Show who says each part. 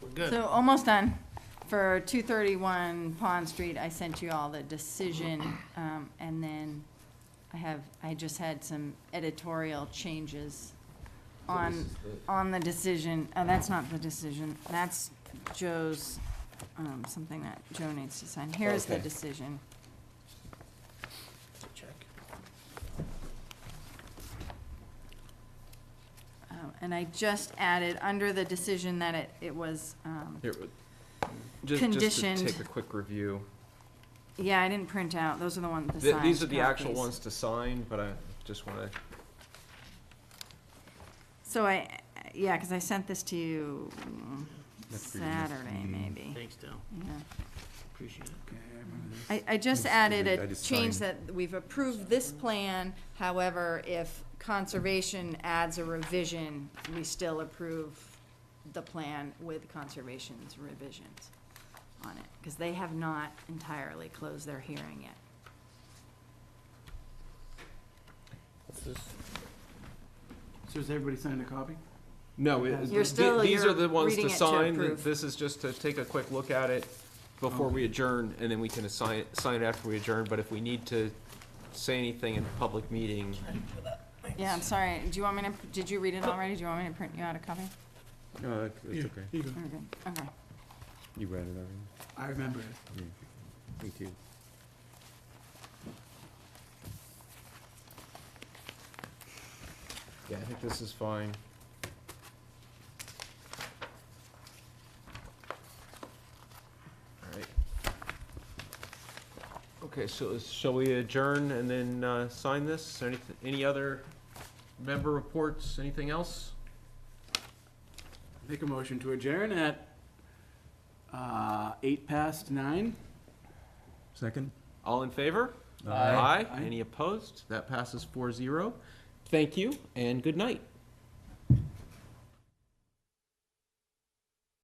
Speaker 1: We're good.
Speaker 2: So almost done. For 231 Pond Street, I sent you all the decision, um, and then I have, I just had some editorial changes on, on the decision. Oh, that's not the decision. That's Joe's, um, something that Joe needs to sign. Here's the
Speaker 3: Okay.
Speaker 2: decision.
Speaker 1: Check.
Speaker 2: Um, And I just added, under the decision that it, it was, um,
Speaker 4: Here, uh, just, just to
Speaker 2: Conditioned.
Speaker 4: take a quick review.
Speaker 2: yeah, I didn't print out. Those are the ones, the
Speaker 4: Th-
Speaker 2: signed
Speaker 4: These are the actual
Speaker 2: copies.
Speaker 4: ones to sign, but I just want to,
Speaker 2: So I, yeah, because I sent this to you mm,
Speaker 3: That's pretty nice.
Speaker 2: Saturday, maybe.
Speaker 1: Thanks, Dale.
Speaker 2: Yeah.
Speaker 1: Appreciate it.
Speaker 2: I, I just
Speaker 3: That's
Speaker 2: added
Speaker 3: good. I
Speaker 2: a
Speaker 3: just
Speaker 2: change
Speaker 3: signed.
Speaker 2: that we've approved this plan, however, if conservation adds a revision, we still approve the plan with conservation's revisions on it, because they have not entirely closed their hearing yet.
Speaker 5: So has everybody signed a copy?
Speaker 4: no, it-
Speaker 5: You're
Speaker 4: th-
Speaker 2: still-
Speaker 4: these
Speaker 2: you're
Speaker 4: are the ones
Speaker 2: reading
Speaker 4: to
Speaker 2: it to
Speaker 4: sign. Th-
Speaker 2: approve.
Speaker 4: This is just to take a quick look at it before we adjourn, and then we can assign, sign it after we adjourn. But if we need to say anything in a public meeting,
Speaker 2: Yeah, I'm sorry, do you want me to, did you read it already? Do you want me to print you out a copy?
Speaker 4: Uh,
Speaker 3: No, it- it's okay.
Speaker 2: You're good. Okay.
Speaker 3: You read it already.
Speaker 5: I remember it.
Speaker 3: Yeah. Thank you.
Speaker 4: yeah, I think this is fine. All right. Okay, so is- shall we adjourn and then uh, sign this? Any, any other member reports, anything else?
Speaker 5: Make a motion to adjourn at, uh, eight past nine.
Speaker 3: Second?
Speaker 4: All in favor?
Speaker 3: Aye.
Speaker 4: Aye.
Speaker 5: Aye.
Speaker 4: Any opposed? That passes 4-0. Thank you and good night.